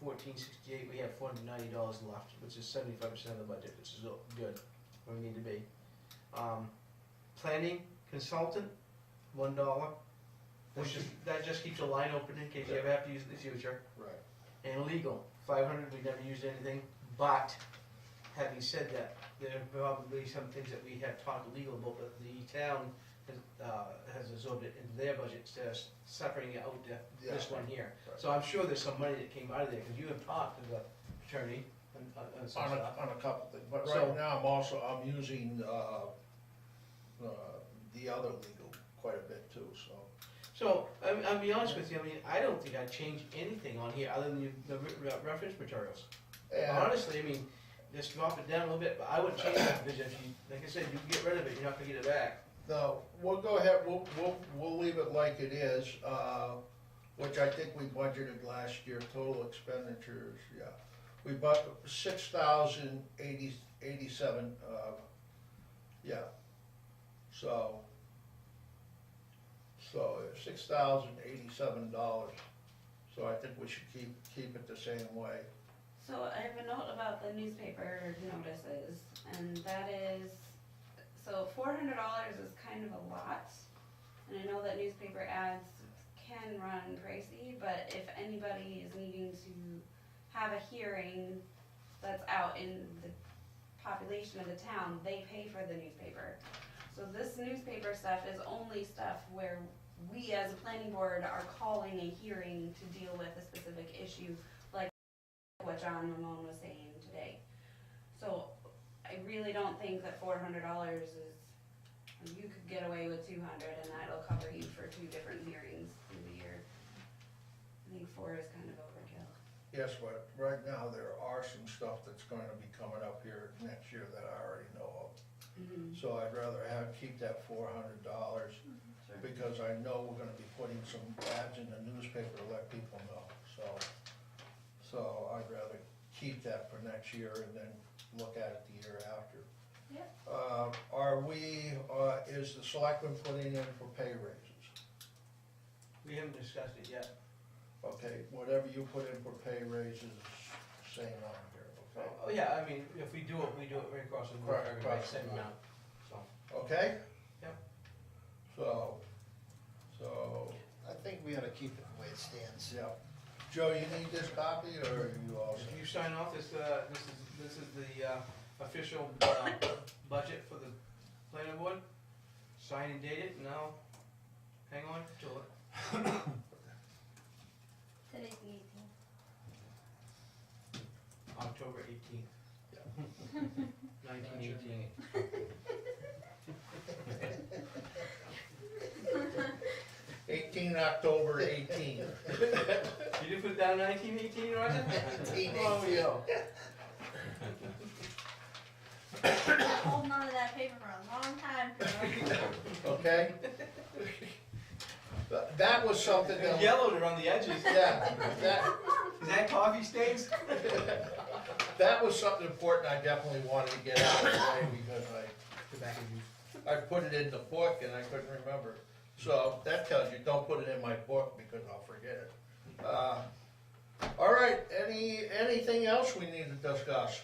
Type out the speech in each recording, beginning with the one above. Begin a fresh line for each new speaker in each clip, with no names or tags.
fourteen sixty-eight, we have four hundred ninety dollars left, which is seventy-five percent of the budget, which is good, where we need to be. Um, planning consultant, one dollar, which is, that just keeps a line open in case you ever have to use it in the future.
Right.
And legal, five hundred, we never used anything, but having said that, there are probably some things that we have talked legal about, but the town has, uh, has absorbed it into their budget, so it's suffering it out to this
Yeah.
one here.
Right.
So I'm sure there's some money that came out of there, because you have talked to the attorney and, uh, and some
On a,
stuff.
on a couple things, but
So-
right now, I'm also, I'm using, uh, uh, the other legal quite a bit too, so.
So, I mean, I'll be honest with you, I mean, I don't think I'd change anything on here other than you- the re- re- reference materials.
And,
Honestly, I mean, just drop it down a little bit, but I wouldn't change that, because if you, like I said, you can get rid of it, you're not gonna get it back.
no, we'll go ahead, we'll, we'll, we'll leave it like it is, uh, which I think we budgeted last year, total expenditures, yeah. We bought six thousand eighty, eighty-seven, uh, yeah, so. So six thousand eighty-seven dollars, so I think we should keep, keep it the same way.
So I have a note about the newspaper notices, and that is, so four hundred dollars is kind of a lot. And I know that newspaper ads can run pricey, but if anybody is needing to have a hearing that's out in the population of the town, they pay for the newspaper. So this newspaper stuff is only stuff where we as a planning board are calling a hearing to deal with a specific issue what John Ramon was saying today. So I really don't think that four hundred dollars is, you could get away with two hundred and that'll cover you for two different hearings through the year. I think four is kind of overkill.
Yes, but right now, there are some stuff that's gonna be coming up here next year that I already know
Mm-hmm.
of. So I'd rather have, keep that four hundred dollars,
Sure.
because I know we're gonna be putting some ads in the newspaper to let people know, so. So I'd rather keep that for next year and then look at it the year after.
Yep.
Uh, are we, uh, is the selectmen putting in for pay raises?
We haven't discussed it yet.
Okay, whatever you put in for pay raises, same on here, okay?
Oh, yeah, I mean, if we do it, we do it right across the board,
Right,
everybody,
across the
same
board.
amount, so.
Okay?
Yep.
So, so,
I think we ought to keep it the way it stands.
yeah. Joe, you need this copy or are you all
If
set?
you sign off, this, uh, this is, this is the, uh, official, uh, budget for the planning board. Sign and date it, and I'll hang on to it.
Today's the eighteenth.
October eighteenth. Nineteen eighteen.
Eighteen October eighteen.
Did you put down nineteen eighteen, Roger? Oh, yeah.
holding on to that paper for a long time. Carol.
Okay? But That was something
It
that,
Yellowed around the edges.
yeah, that,
Is that coffee stains?
that was something important I definitely wanted to get out of the way because
Tobacco juice.
I, I put it in the book and I couldn't remember. So that tells you, don't put it in my book because I'll forget it. Uh, All right, any, anything else we need to discuss?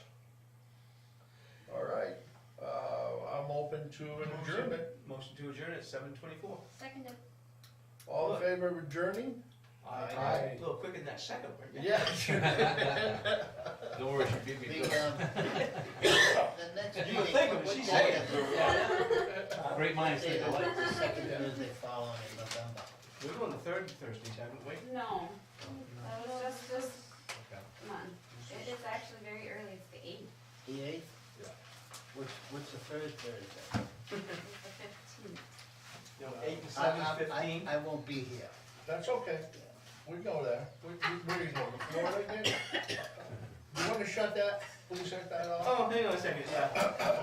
All right, uh, I'm open to an adjournment.
Motion to adjourn at seven twenty-four.
Seconded.
All in favor of adjourning? Aye.
A little quicker than that second one.
Yeah.
Don't worry, she beat me
The,
to
um, the next
You
meeting.
would think
what-
when she
what
said
day
it.
is it?
it. Great minds
Day
think
is
alike.
the second Tuesday following in November.
We're doing the third Thursdays, haven't we?
No, that was just this
Okay.
month. It is actually very early, it's the eighth,
The eighth?
Yeah.
Which, what's the third Thursday?
it's the fifteenth.
No, eight and
I-
seven,
I- I-
fifteen.
I won't be here.
That's okay, we go there. We- we- Where are you going, Florida again? You wanna shut that, please shut that off?
Oh, hang on a second, yeah.